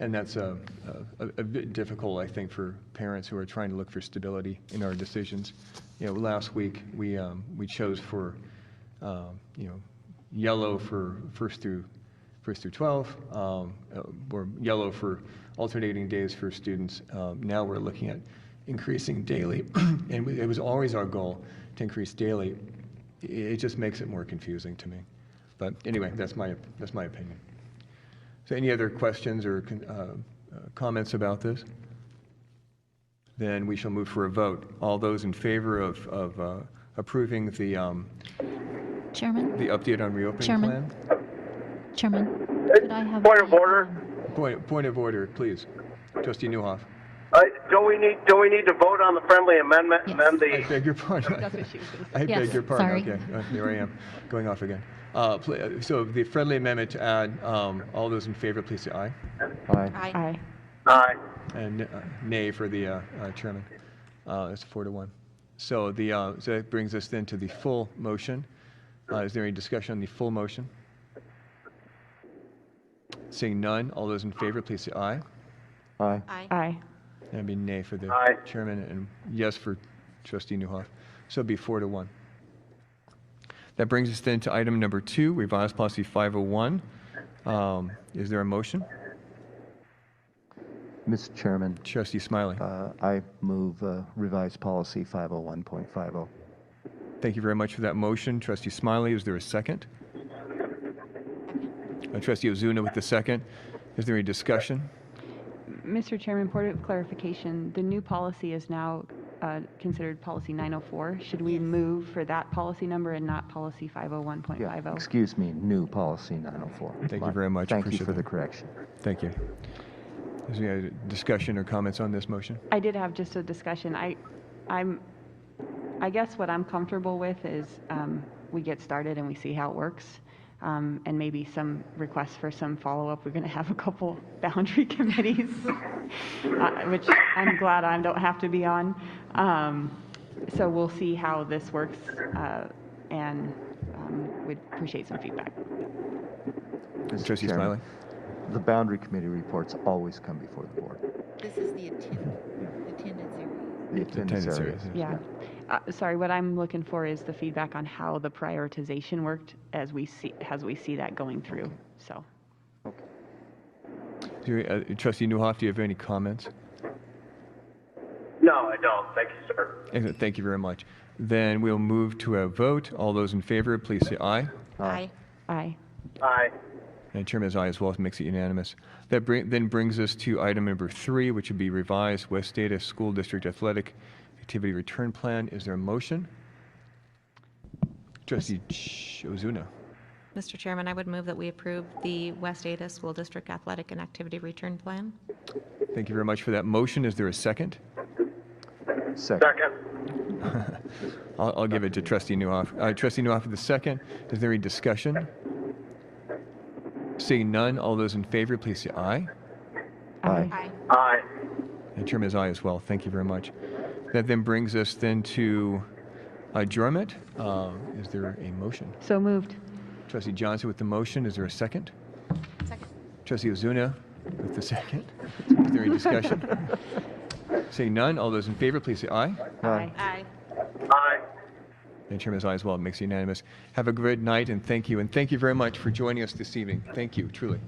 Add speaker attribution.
Speaker 1: And that's a, a, a bit difficult, I think, for parents who are trying to look for stability in our decisions. You know, last week, we, um, we chose for, um, you know, yellow for first through, first through 12, um, uh, or yellow for alternating days for students. Um, Now we're looking at increasing daily, and we- it was always our goal to increase daily. I- It just makes it more confusing to me. But anyway, that's my, that's my opinion. So any other questions or con- uh, uh, comments about this? Then we shall move for a vote. All those in favor of, of uh, approving the, um,
Speaker 2: Chairman,
Speaker 1: the update on reopening
Speaker 2: Chairman.
Speaker 1: plan?
Speaker 2: Chairman, could I have?
Speaker 3: Point of order.
Speaker 1: Point, point of order, please. Trustee Newhoff.
Speaker 3: Uh, do we need, do we need to vote on the friendly amendment?
Speaker 2: Yes.
Speaker 3: Amend
Speaker 1: I
Speaker 3: the,
Speaker 1: beg your pardon. I beg
Speaker 2: Yes,
Speaker 1: your pardon.
Speaker 2: sorry.
Speaker 1: Okay, uh, there I am, going off again. Uh, pl- uh, So the friendly amendment to add, um, all those in favor, please say aye.
Speaker 2: Aye.
Speaker 3: aye.
Speaker 1: And uh, nay for the uh, uh, chairman. Uh, It's four to one. So the, uh, so that brings us then to the full motion. Uh, Is there any discussion on the full motion? Seeing none, all those in favor, please say aye.
Speaker 4: Aye.
Speaker 5: Aye.
Speaker 1: That'd be nay for the
Speaker 3: Aye.
Speaker 1: chairman and yes for trustee Newhoff. So it'd be four to one. That brings us then to item number two, revised policy 501. Um, Is there a motion?
Speaker 4: Mr. Chairman,
Speaker 1: Trustee Smiley.
Speaker 4: uh, I move uh, revised policy 501.50.
Speaker 1: Thank you very much for that motion. Trustee Smiley, is there a second? Uh, Trustee Ozuna with the second. Is there any discussion?
Speaker 5: Mr. Chairman, point of clarification, the new policy is now uh, considered policy 904. Should we move for that policy number and not policy
Speaker 4: Yeah,
Speaker 5: 501.50?
Speaker 4: excuse me, new policy 904.
Speaker 1: Thank you
Speaker 4: My-
Speaker 1: very much.
Speaker 4: Thank you
Speaker 1: Appreciate
Speaker 4: for the
Speaker 1: that.
Speaker 4: correction.
Speaker 1: Thank you. Is there any discussion or comments on this motion?
Speaker 5: I did have just a discussion. I, I'm, I guess what I'm comfortable with is um, we get started and we see how it works. Um, And maybe some requests for some follow-up. We're going to have a couple boundary committees, uh, which I'm glad I don't have to be on. Um, So we'll see how this works uh, and um, would appreciate some feedback.
Speaker 4: Mr.
Speaker 1: Trustee Smiley.
Speaker 4: Chairman, The boundary committee reports always come before the board.
Speaker 6: This is the attendant, attendance area.
Speaker 4: The attendance
Speaker 1: attendance
Speaker 4: areas.
Speaker 1: areas,
Speaker 5: Yeah. Uh, Sorry, what I'm looking for is the feedback on how the prioritization worked as we see, as we see that going through, so.
Speaker 1: Do you- uh, Trustee Newhoff, do you have any comments?
Speaker 3: No, I don't. Thank you, sir.
Speaker 1: Excellent. Thank you very much. Then we'll move to a vote. All those in favor, please say aye.
Speaker 6: Aye.
Speaker 5: Aye.
Speaker 3: Aye.
Speaker 1: And Chairman is aye as well, makes it unanimous. That bring, then brings us to item number three, which would be revised West Data School District Athletic Activity Return Plan. Is there a motion? Trustee Ch- Ozuna.
Speaker 7: Mr. Chairman, I would move that we approve the West Ada School District Athletic and Activity Return Plan.
Speaker 1: Thank you very much for that motion. Is there a second?
Speaker 4: Second.
Speaker 3: Second.
Speaker 1: I'll, I'll give it to Trustee Newhoff. Uh, Trustee Newhoff with the second. Is there any discussion? Seeing none, all those in favor, please say aye.
Speaker 4: Aye.
Speaker 3: Aye.
Speaker 1: And Chairman is aye as well. Thank you very much. That then brings us then to adjournment. Uh, Is there a motion?
Speaker 5: So moved.
Speaker 1: Trustee Johnson with the motion. Is there a second?
Speaker 6: Second.
Speaker 1: Trustee Ozuna with the second. Is there any discussion? Seeing none, all those in favor, please say aye.
Speaker 4: Aye.
Speaker 6: Aye.
Speaker 3: Aye.
Speaker 1: And Chairman is aye as well. It makes it unanimous. Have a great night and thank you. And thank you very much for joining us this evening. Thank you, truly.